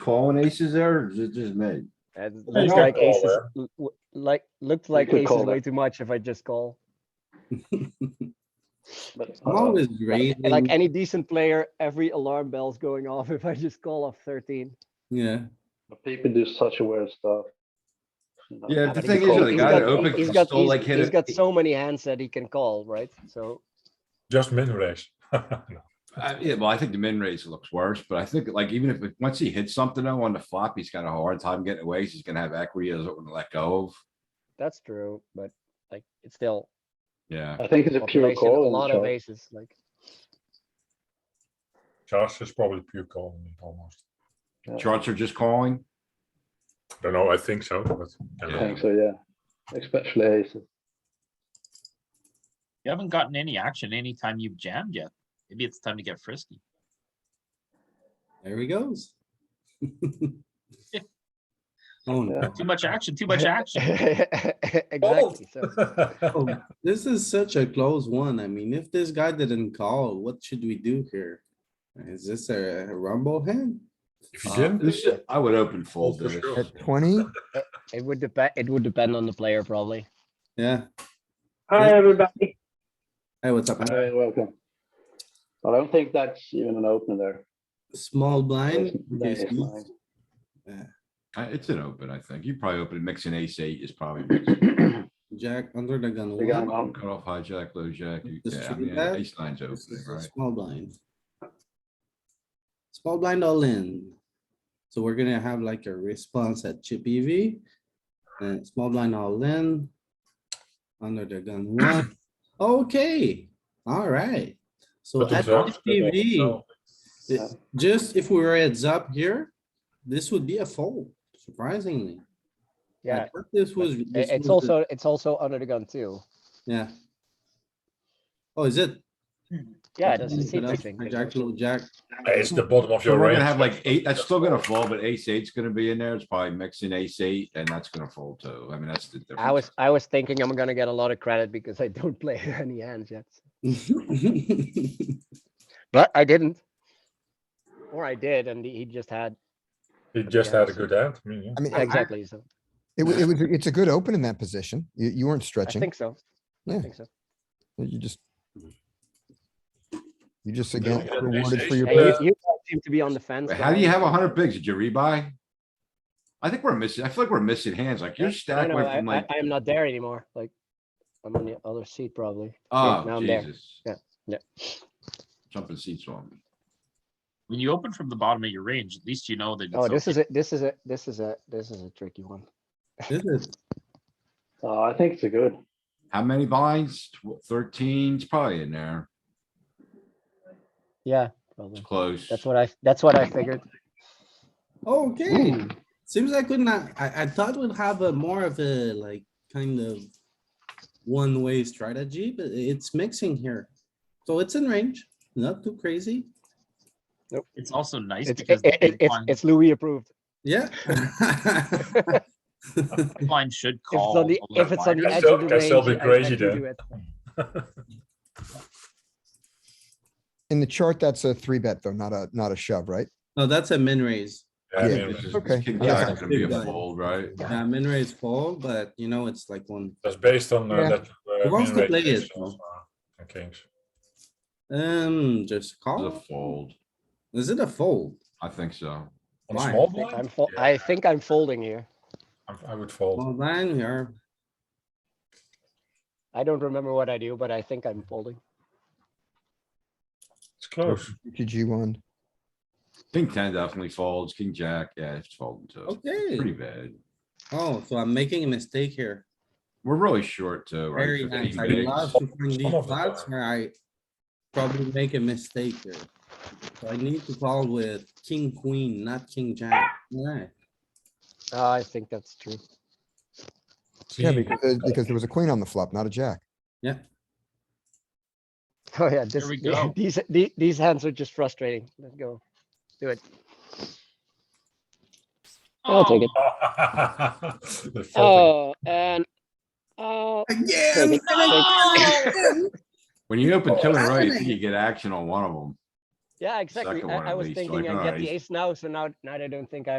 calling aces there, or is it just me? It you looks can like call aces, there. l- w- like, looked like could aces call way there. too much if I just call. But I'm uh, always Like like raising, any decent player, every alarm bell's going off if I just call off thirteen. yeah, but people do such weird stuff. you know. Yeah, But the he's thing is, got- the he's guy got- that opened he's can got- still he's- like hit He's got it. so many hands that he can call, right? So, Just min raise. I- Uh, Yeah, well, I think the min raise looks worse, but I think like even if, it- once he hits something though on the flop, he's got a hard time getting away. 'cause He's gonna have equity, he doesn't wanna let go of. that's true, but like, it's still. Yeah, I think it's a pure population, call. A in the lot of shot. aces, like, Charge is probably pure calling almost. charts are just calling. Don't know, I think so, but. I don't I Yeah. know. think so, yeah. Especially aces. You haven't gotten any action anytime you've jammed yet. Maybe it's time to get frisky. there he goes. Oh, no. Too much action, too much action. exactly, so, Oh, This is such a close one. I mean, if this guy didn't call, what should we do here? Is this a rumble hand? If you Uh, jam, this is- Oh, I would open fold to for this. sure. At twenty, it would depend, it would depend on the player probably. Yeah, Hi, Yeah. everybody. hey, what's up? man? Hey, welcome. But I don't think that's even an open there. Small blind. That's- that okay, is squeeze. mine. Uh, It's an open, I think. You probably open mixing ace eight is probably mixing. Jack under the gun. We got one. one. Cut off hijack, low jack. you- Just Yeah, I three mean, bet. ace nine's This opening, is a right? Small blind. Small blind all in. So we're gonna have like a response at chip EV. And small blind all in. Under the gun one. Okay, alright. So But at observe chip that they EV, know Yeah. just if we were heads up here, this would be a fold, surprisingly. I Yeah, thought This but was. i- this it's was the- also, it's also under the gun too. Yeah. Oh, is it? Yeah, I it doesn't didn't seem put I up think. Jack, little jack. It's the bottom of So your we're range. gonna have like eight, that's still gonna fall, but ace eight's gonna be in there. It's probably mixing ace eight and that's gonna fold too. I mean, that's the difference. I was, I was thinking I'm gonna get a lot of credit because I don't play any hands yet, It's but I didn't. Or I did, and he just had, He just had a good hand, I mean, yeah. I mean, I- exactly, so, it was, it was, it's a good open in that position. You, you weren't I stretching. think so. I Yeah. think so. You just. You just Yeah, again yeah, ace- rewarded for ace- your Yeah, you, play. Uh, you guys seem to be on the fence. Wait, How do you guys. have a hundred bigs? Did you rebuy? I think we're missing, I feel like we're missing hands, like your I stack know, went I, from I, like, I am not there anymore, like, I'm on the other seat probably. now oh, I'm there. Jesus. Yeah, yeah. Jumping seats on me. When you open from the bottom of your range, at least you know that. Oh, it's this open. is a, this is a, this is a, this is a tricky one. Uh, I think it's a good. How many blinds? Thirteen's probably in there. Yeah, It's probably. close. That's what I, that's what I figured. Okay, seems I could not, I, I thought we'd have a more of a like kind of one-way strategy, but it's mixing here. So it's in range, not too crazy. It's also nice It's, because it- it- the big it's, blind- it's Louis approved. Yeah. big blind should If it's call. on the, a lot if it's on the That's edge so- of the that's range. so bit I- I crazy can then. do it. In the chart, that's a three bet though, not a, not a shove, right? No, that's a min raise. Yeah, Yeah. I mean, This is- Okay. this king Yeah. jack's gonna be a Yeah. fold, right? Yeah, Uh, min raise fold, but you know, it's like one, That's based on uh, Yeah. that. uh, Who wants to play it? And kings. um, just It's a Oh. call. fold. Is it a fold? I think so. On Why? small I think I'm, blind, fol- I think I'm folding here. I- I would fold. Well, then we are, I don't remember what I do, but I think I'm folding. It's close. GG one. King ten definitely folds, king jack, yeah, it's folding too. Pretty okay. bad. Oh, so I'm making a mistake here. We're really short too, right? Very 15 nice. I bigs. love to find Some these of the spots time. where I probably make a mistake here. So I need to call with king, queen, not king, jack. Alright, Uh, I think that's true. Yeah, King. because, uh, because there was a queen on the flop, not a jack. Oh, yeah, this, we go. these, the- these hands are just frustrating. Let's go. Do it. I'll take it. The folding. Oh, and, oh. Again. Oh, When you open two in a row, you think you get action on one of them. Yeah, exactly. Second one I, I at was least, thinking like, I all get right, the he's- ace now, so now, now I don't think I